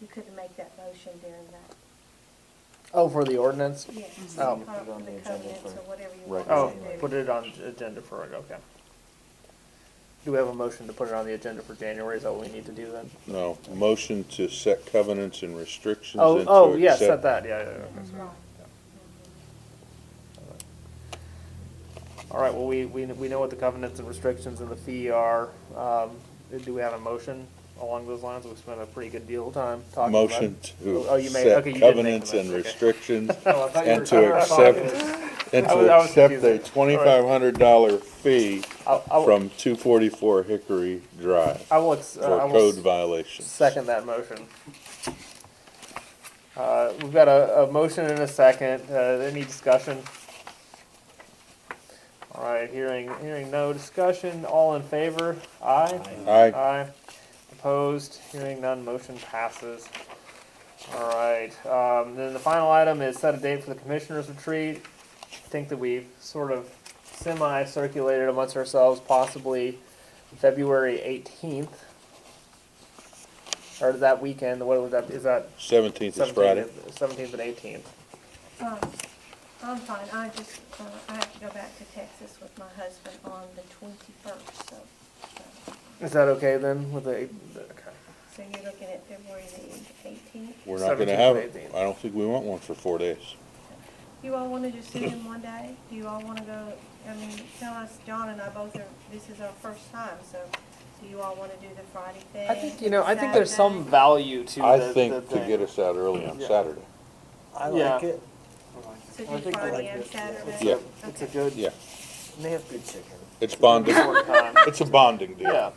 You couldn't make that motion during that. Oh, for the ordinance? Yes. Oh. Put Con- it on the Um, the agenda covenants for or whatever you rec- want Oh, to do. put it on the agenda for it, okay. Do we have a motion to put it on the agenda for January? Is that what we need to do then? No, motion to set covenants and restrictions Oh, and oh, to yes, at accept. that, yeah, yeah, yeah. okay, sorry. All right, well, we, we, we know what the covenants and restrictions and the fee are. Um, do we have a motion along those lines? We've spent a pretty good deal of time talking about. Motion Oh, you to made- okay, you did make the set covenants and motion, okay. restrictions Oh, I thought you and were- to I thought it accept, was- and I was- I to was accept a confused. All right. twenty-five hundred dollar fee I- I- from two forty-four Hickory Drive I will, ex- uh, for I will code s- violations. second that motion. Uh, we've got a, a motion and a second, uh, any discussion? All right, hearing, hearing no discussion, all in favor, aye? Aye, Aye. Opposed, hearing none, motion passes. All right, um, then the final item is set a date for the commissioners retreat. I think that we've sort of semi-circulated amongst ourselves, possibly February eighteenth. Or that weekend, what would that, is that seventeenth is Friday. seventeenth, seventeenth and eighteenth? Um, I'm fine, I just, uh, I have to go back to Texas with my husband on the twenty-first, so, uh, Is that okay then with the, eight- okay. so you're looking at February the eighteenth? We're not 17th gonna and have it. 18th. I don't think we want one for four days. You all wanna just sit in one day? Do you all wanna go, I mean, tell us, John and I both are, this is our first time, so do you all wanna do the Friday thing? I think, you know, I think there's some Saturday? value to I the, the think to thing. get us out early on Yeah. Saturday. I Yeah. like it. I So do think I Friday like and this, yeah. Saturday? Yeah. It's a Okay. good. Yeah, And they have good chicken. it's bonding. short time. It's a bonding Yeah, deal. yeah,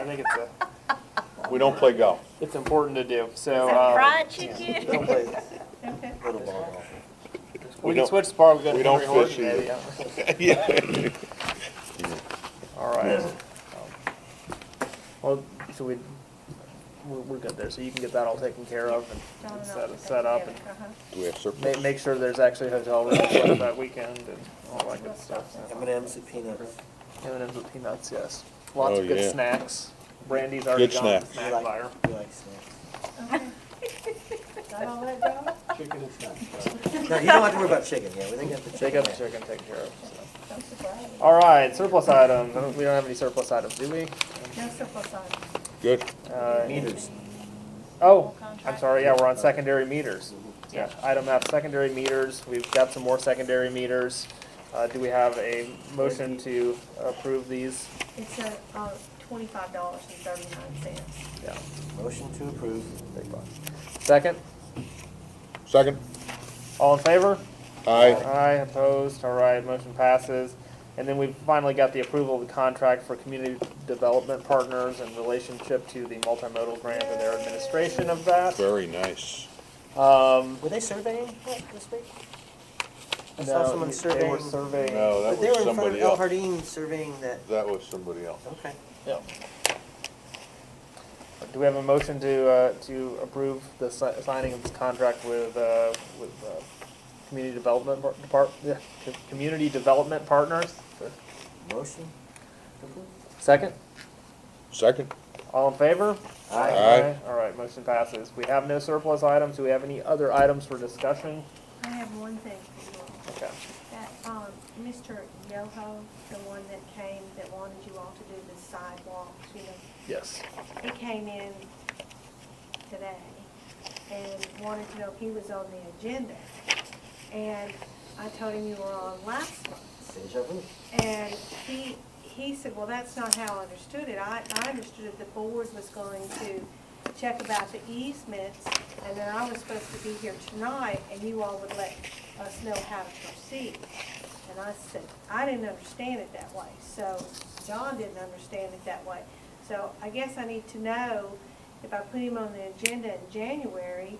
I think it's a, We don't play golf. it's important to do. So uh, They don't play Okay. little ball. we We can don't- switch tomorrow. We got Henry we don't Horton. fish maybe, either. yeah. Yeah. All right. Well, so we we're, we're good there. So you can get that all taken care of and, John and and I set will set go up and together. Uh-huh. Do we have make, surplus? make sure there's actually hotel rooms left that weekend and all that good stuff. So. M and M's and peanuts. M and M's with peanuts, yes. Lots Oh, of good yeah. snacks. Brandy's already Good gone to snacks. You snack buyer. like, you like snacks. Okay. Got all that, John? No, you don't have to worry about chicken, yeah, we think got the They chicken. got the there. chicken taken care of. So. I'm surprised. All right, surplus items. I don't- We don't have any surplus items, do we? No surplus on. Good. Uh, Meters. Oh, I'm Contract. sorry, yeah, we're on secondary meters. Yeah, item F, secondary meters, we've got some more secondary meters. Uh, do we have a motion to approve these? It's a, uh, twenty-five dollars and thirty-nine cents. Yeah, Motion to approve. second, Second? all in favor? Aye. Aye, opposed, all right, motion passes. And then we've finally got the approval of the contract for community development partners in relationship to the multimodal grant and their administration of that. Very nice. Um, Were they surveying that this week? I saw no, someone they were surveying. surveying, No, that But they were was in front somebody of El else. Hardin surveying that, That was somebody else. okay. yeah. Do we have a motion to, uh, to approve the si- signing of this contract with, uh, with, uh, Community Development Par- Depart, yeah, Co- Community Development Partners? Motion? Second, Second? all in favor? Aye. All right, motion passes. We have no surplus items. Do we have any other items for discussion? I have one thing for you all. Okay. That, um, Mr. Yoho, the one that came, that wanted you all to do the sidewalks, you know, Yes. he came in today and wanted to know if he was on the agenda. And I told him you were on last month. Deja vu. And he, he said, well, that's not how I understood it. I, I understood that the board was going to check about the easements, and then I was supposed to be here tonight, and you all would let us know how to proceed. And I said, I didn't understand it that way, so John didn't understand it that way. So I guess I need to know if I put him on the agenda in January,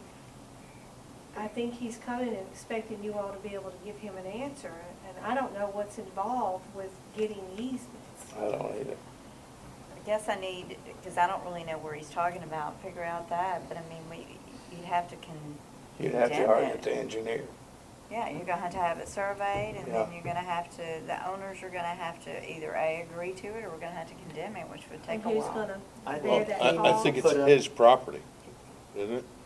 I think he's coming and expecting you all to be able to give him an answer, and I don't know what's involved with getting easements. I don't either. I guess I need, because I don't really know where he's talking about, figure out that, but I mean, we, you'd have to con. You'd have to condemn argue it. with the engineer. Yeah, you're gonna have to have it surveyed, and then Yeah. you're gonna have to, the owners are gonna have to either A, agree to it, or we're gonna have to condemn it, which would take And a who's while. gonna I bear think that I, I cost? think it's his property, isn't it?